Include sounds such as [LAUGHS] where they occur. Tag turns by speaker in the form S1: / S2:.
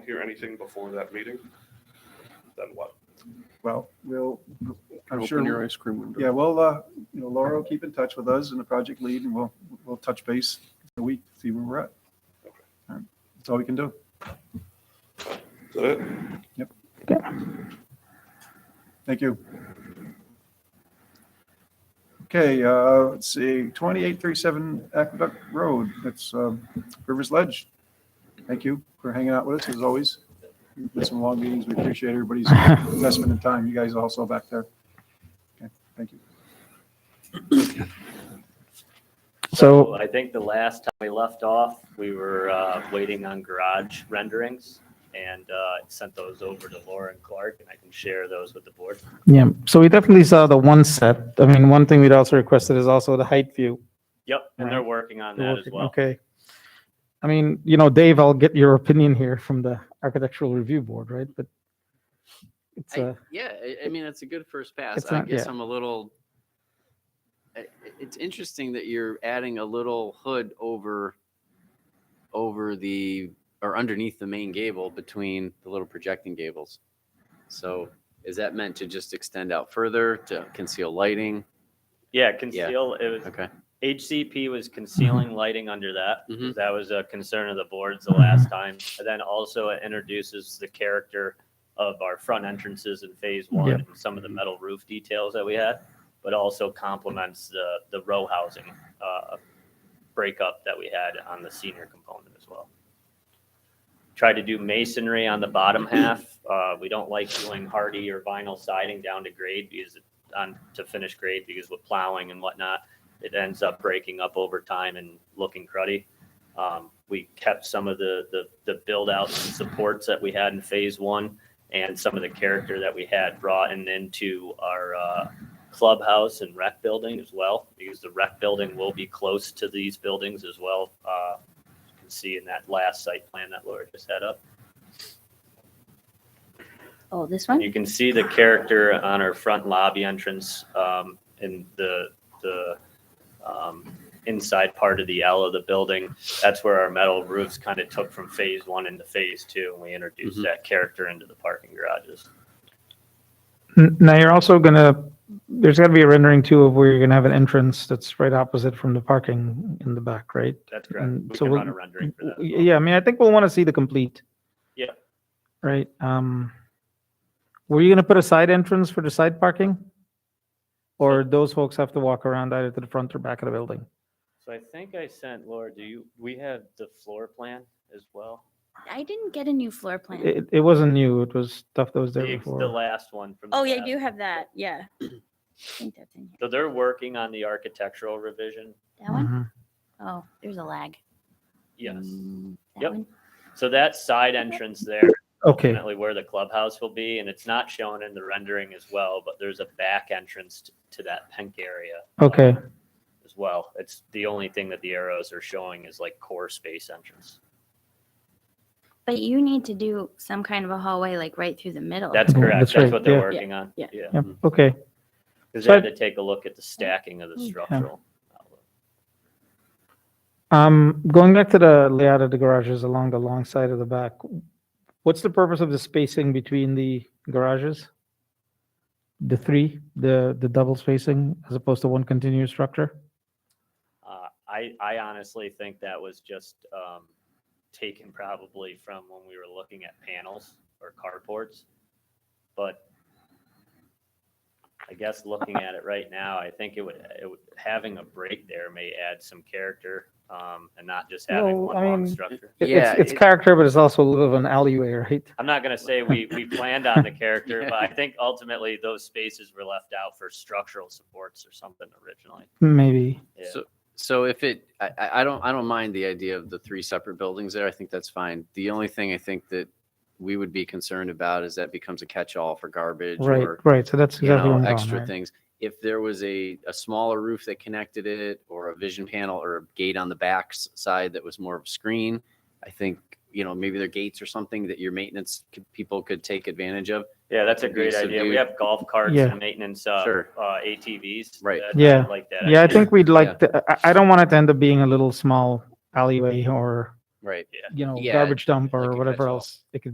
S1: hear anything before that meeting, then what?
S2: Well, we'll, I'm
S3: Open your
S2: sure,
S3: ice cream window.
S2: yeah, well, uh, you know, Laura will keep in touch with us and the project lead and we'll, we'll touch base in a week, see where we're at.
S1: Okay.
S2: All right. That's all we can do.
S1: Is that it?
S2: Thank you. Okay, uh, let's see, 2837 Aqueduct Road, that's um, Rivers Ledge. Thank you for hanging out with us as always. It's been some long meetings. We appreciate everybody's investment and time. You guys also back there. Okay, thank you.
S4: So,
S5: I think the last time we left off, we were uh, waiting on garage renderings and uh, sent those over to Laura and Clark, and I can share those with the board.
S4: yeah, so we definitely saw the one set. I mean, one thing we'd also requested is also the height view.
S5: Yep, and they're working on that as well.
S4: Okay. I mean, you know, Dave, I'll get your opinion here from the architectural review board, right? But it's uh,
S6: I-
S4: a,
S6: yeah, I, I mean, it's a good first pass.
S4: It's
S6: I
S4: not-
S6: guess
S4: yeah.
S6: I'm a little. I- i- It's interesting that you're adding a little hood over, over the or underneath the main gable between the little projecting gables. So is that meant to just extend out further to conceal lighting?
S5: Yeah, conceal, it was,
S6: Okay.
S5: HCP was concealing lighting under that.
S6: Mhm.
S5: because That was a concern of the boards the last time. And then also it introduces the character of our front entrances in phase one
S4: Yep.
S5: and some of the metal roof details that we had, but also complements the, the row housing uh, breakup that we had on the senior component as well. Tried to do masonry on the bottom half. Uh, We don't like doing hardy or vinyl siding down to grade because it- on, to finish grade because with plowing and whatnot it ends up breaking up over time and looking cruddy. Um, we kept some of the, the, the build outs and supports that we had in phase one and some of the character that we had brought in into our, uh, clubhouse and rec building as well, because the rec building will be close to these buildings as well. Uh, you can see in that last site plan that Laura just had up.
S7: Oh, this one?
S5: You can see the character on our front lobby entrance um, in the, the um, inside part of the L of the building. That's where our metal roofs kind of took from phase one into phase two, and we introduced
S6: Mhm.
S5: that character into the parking garages.
S4: N- now you're also gonna, there's gotta be a rendering too of where you're gonna have an entrance that's right opposite from the parking in the back, right?
S5: That's correct.
S4: Mm,
S5: We
S4: so
S5: can
S4: we'll-
S5: run a rendering for that. as well.
S4: Yeah, I mean, I think we'll want to see the complete.
S5: Yeah.
S4: Right, um, were you gonna put a side entrance for the side parking? Or those folks have to walk around either to the front or back of the building?
S5: So I think I sent, Laura, do you, we have the floor plan as well?
S7: I didn't get a new floor plan.
S4: It, it wasn't new, it was stuff that was there
S5: The ex- the
S4: before.
S5: last one from. the
S7: Oh, yeah, I
S5: last-
S7: do have that. Yeah. I think that's in
S5: So they're working on the architectural revision.
S7: here.
S4: [CLEARS THROAT]
S7: That one?
S4: Mhm.
S7: Oh, there's a lag.
S5: Yes.
S7: Mm, that
S5: Yep.
S7: one?
S5: So that side entrance there
S4: Okay,
S5: ultimately where the clubhouse will be, and it's not shown in the rendering as well, but there's a back entrance t- to that pink area. uh,
S4: okay,
S5: As well. It's the only thing that the arrows are showing is like core space entrance.
S7: But you need to do some kind of a hallway, like right through the middle.
S5: That's
S4: Mhm,
S5: correct.
S4: that's
S5: That's
S4: right,
S5: what they're
S4: yeah.
S5: working on.
S7: Yeah,
S5: Yeah.
S4: yep, okay.
S5: Because
S4: So
S5: they
S4: I-
S5: had to take a look at the stacking of the
S7: Yeah.
S5: structural. outlook.
S4: Um, going back to the layout of the garages along the long side of the back, what's the purpose of the spacing between the garages? The three, the, the double spacing as opposed to one continuous structure?
S5: Uh, I, I honestly think that was just, um, taken probably from when we were looking at panels or carports. But I guess looking at it right now, I think it would, it would, having a break there may add some character, um, and not just having
S4: Well,
S5: one
S4: I
S5: long
S4: mean-
S5: structure.
S4: It-
S6: Yeah,
S4: It's, it's
S6: it-
S4: character, but it's also a little of an alleyway, right?
S5: I'm not gonna say we, we planned on the character,
S4: [LAUGHS]
S5: but I think ultimately those spaces were left out for structural supports or something originally.
S4: Maybe.
S5: Yeah.
S6: So, so if it, I, I I don't, I don't mind the idea of the three separate buildings there. I think that's fine. The only thing I think that we would be concerned about is that becomes a catch-all for garbage
S4: Right,
S6: or
S4: right. So that's
S6: you
S4: exactly
S6: know,
S4: what I'm
S6: extra
S4: going, right?
S6: things. If there was a, a smaller roof that connected it or a vision panel or a gate on the back s- side that was more of a screen, I think, you know, maybe there are gates or something that your maintenance could, people could take advantage of.
S5: Yeah, that's a
S6: could be
S5: great idea. We
S6: subdued.
S5: have golf carts
S4: Yeah.
S5: and maintenance, uh,
S6: Sure.
S5: uh, ATVs.
S6: Right.
S5: that-
S4: Yeah.
S5: I Like that.
S4: Yeah, I
S5: idea.
S4: think we'd like, to- I, I don't want it to end up being a little small alleyway or,
S6: Right.
S4: you know,
S6: Yeah,
S4: garbage dump
S6: like
S4: or
S6: a
S4: whatever
S6: catch-all.
S4: else it could